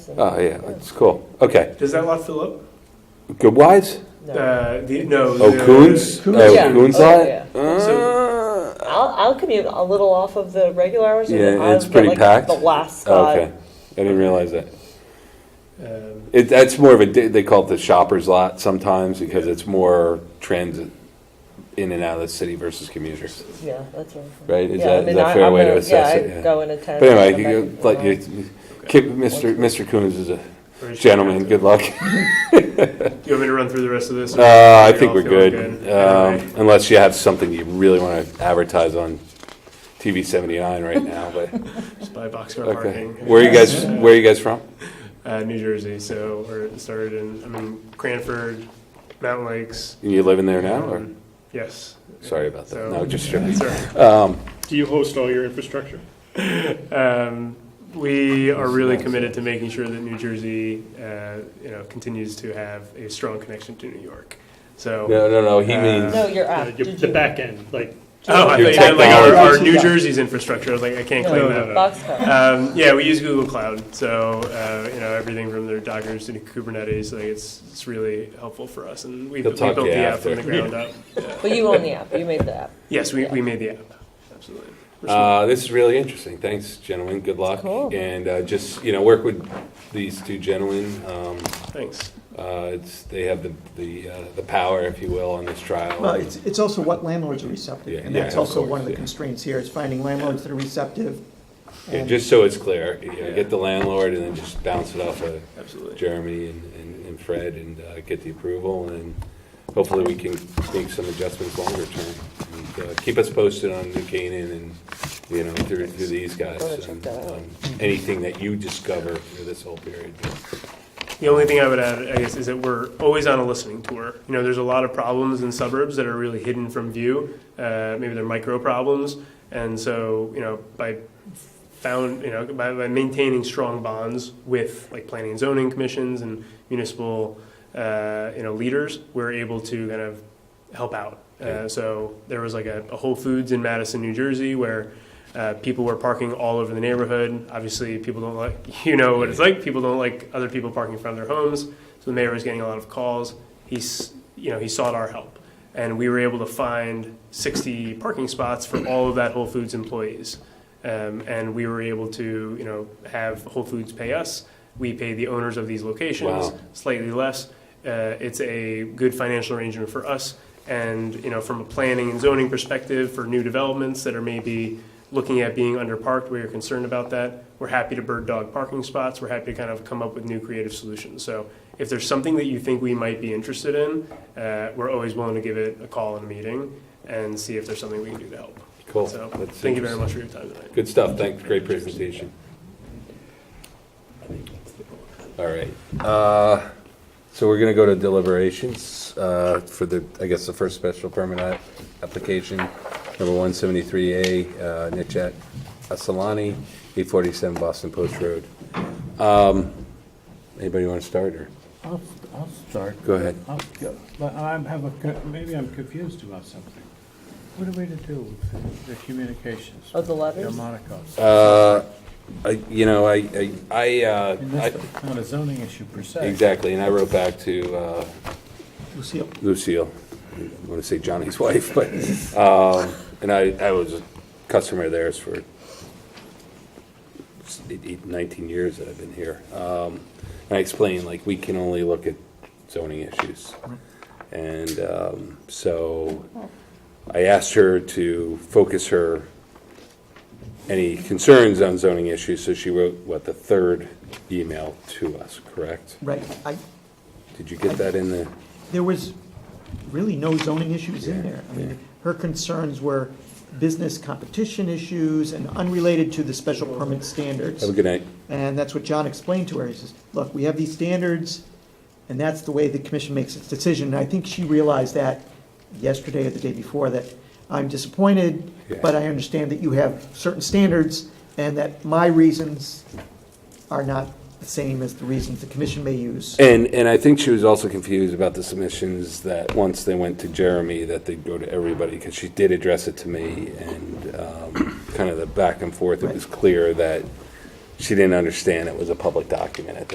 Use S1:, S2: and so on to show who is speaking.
S1: Oh, yeah, that's cool. Okay.
S2: Does that lot fill up?
S1: Good Wise?
S3: No.
S2: Uh, the, no.
S1: Oh,
S2: the- uh,
S1: Coons?
S2: Coons.
S1: Oh,
S3: Yeah.
S1: Coons
S3: Oh,
S1: lot?
S3: yeah.
S1: Uh,
S3: I'll, I'll commute a little off of the regular hours. and
S1: Yeah,
S3: I'll
S1: it's
S3: get,
S1: pretty
S3: like,
S1: packed.
S3: The last
S1: oh,
S3: spot.
S1: okay. I didn't realize that.
S2: Um,
S1: It, that's more of a, di- they call it the shopper's lot sometimes because it's more transit in and out of the city versus commuters,
S3: Yeah, that's right.
S1: right? Is
S3: yeah,
S1: that,
S3: I
S1: is
S3: mean,
S1: that
S3: I-
S1: a fair
S3: I'm
S1: way
S3: gonna-
S1: to assess
S3: yeah,
S1: it?
S3: I
S1: Yeah.
S3: go in at 10.
S1: But
S3: come
S1: anyway,
S3: back
S1: you,
S3: and go
S1: like, you,
S3: home.
S1: keep- Mr. Mr. Coons is a
S2: or is she-
S1: gentleman. Good luck.
S2: Do you want me to run through the rest of this? or
S1: Uh, I
S2: do you
S1: think
S2: all
S1: we're
S2: feel
S1: good,
S2: Anyway.
S1: Um, unless you have something you really want to advertise on TV 79 right now, but,
S2: Just buy boxcar
S1: okay.
S2: parking.
S1: Where are you guys, where are you guys from?
S2: Uh, New Jersey, so we're started in, I mean, Cranford, Mountain Lakes.
S1: And you living there now, or?
S2: um, Yes.
S1: Sorry about that.
S2: So-
S1: No, just joking.
S2: Sorry.
S1: Um,
S4: Do you host all your infrastructure?
S2: Um, we are really committed to making sure that New Jersey, uh, you know, continues to have a strong connection to New York. So.
S1: No, no, no, he
S2: Uh,
S1: means,
S3: No, you're
S4: Uh,
S3: up.
S4: your-
S3: Did
S4: The
S3: you-
S4: back end, like,
S2: Oh, I thought you
S1: Your
S2: meant like our, our
S3: technology.
S2: New Jersey's infrastructure. I was like, I can't
S3: No,
S2: claim that.
S4: no, no.
S3: Boxcar.
S2: Um, yeah, we use Google Cloud, so uh, you know everything from their Dockers to Kubernetes. Like it's it's really helpful for us, and we, we
S1: He'll
S2: built
S1: talk to you
S2: the app
S1: after.
S2: from the ground up.
S3: But you own the app. You made the app.
S2: Yes, we,
S3: Yeah.
S2: we made the app. Absolutely.
S1: uh, this is really interesting. Thanks, gentlemen. Good luck.
S3: Cool.
S1: And, uh, just, you know, work with these two gentlemen. Um,
S2: Thanks.
S1: uh, it's, they have the, the, uh, the power, if you will, on this trial.
S5: Well, it's, it's also what landlords are
S1: Yeah,
S5: receptive, and
S1: yeah,
S5: that's
S1: of
S5: also
S1: course,
S5: one of the
S1: yeah.
S5: constraints here, is finding landlords that are receptive.
S1: Yeah,
S5: and-
S1: just so it's clear, you know, get the landlord and then just bounce it off of
S2: Absolutely.
S1: Jeremy and- and, and Fred and uh, get the approval, and hopefully we can make some adjustments longer term. And, uh, Keep us posted on New Canaan and, you know, through, through these guys,
S3: Gotta check that out.
S1: um, anything that you discover through this whole period.
S2: The only thing I would add, I guess, is that we're always on a listening tour. You know, there's a lot of problems in suburbs that are really hidden from view. Uh, maybe they're micro problems, and so you know, by found, you know, by, by maintaining strong bonds with like planning and zoning commissions and municipal, uh, you know, leaders, we're able to kind of help out.
S1: Yeah.
S2: Uh, so there was like a, a Whole Foods in Madison, New Jersey, where uh, people were parking all over the neighborhood. Obviously, people don't like, you know what it's like. People don't like other people parking in front of their homes. So the mayor was getting a lot of calls. He's, you know, he sought our help. And we were able to find 60 parking spots for all of that Whole Foods employees. Um, and we were able to, you know, have Whole Foods pay us. We pay the owners of these locations
S1: Wow.
S2: slightly less. Uh, it's a good financial arrangement for us. And, you know, from a planning and zoning perspective for new developments that are maybe looking at being underparked, where you're concerned about that, we're happy to bird dog parking spots. We're happy to kind of come up with new creative solutions. So if there's something that you think we might be interested in, uh, we're always willing to give it a call and a meeting and see if there's something we can do to help.
S1: Cool.
S2: So
S1: That's
S2: thank you very
S1: interesting.
S2: much for your time tonight.
S1: Good stuff, thanks, great presentation. All right, uh, so we're gonna go to deliberations, uh, for the, I guess, the first special permit a- application, number one seventy-three A, uh, Nitchat Asalani, eight forty-seven Boston Post Road. Um, anybody wanna start, or,
S6: I'll, I'll start.
S1: go ahead.
S6: I'll go. But I have a, co- maybe I'm confused about something. What are we to do with the- the communications?
S3: Oh, the letters?
S6: Delmonico's.
S1: Uh, I, you know, I, I, I, uh,
S6: And
S1: I-
S6: this is not a zoning issue per se.
S1: exactly, and I wrote back to, uh,
S5: Lucille,
S1: Lucille, I want to say Johnny's wife, but, um, and I, I was a customer of theirs for eight- eight- 19 years that I've been here. Um, And I explained, like, we can only look at zoning issues. And um, so I asked her to focus her, any concerns on zoning issues, so she wrote, what, the third email to us, correct?
S5: right, I,
S1: Did you get that in the?
S5: there was really no zoning issues in there. I mean, her concerns were business competition issues and unrelated to the special permit standards.
S1: Have a good night.
S5: And that's what John explained to her. He says, look, we have these standards, and that's the way the commission makes its decision. And I think she realized that yesterday or the day before, that I'm disappointed,
S1: Yeah.
S5: but I understand that you have certain standards, and that my reasons are not the same as the reasons the commission may use.
S1: And, and I think she was also confused about the submissions that once they went to Jeremy, that they'd go to everybody, because she did address it to me, and um, kind of the back and forth, it was clear that she didn't understand it was a public document at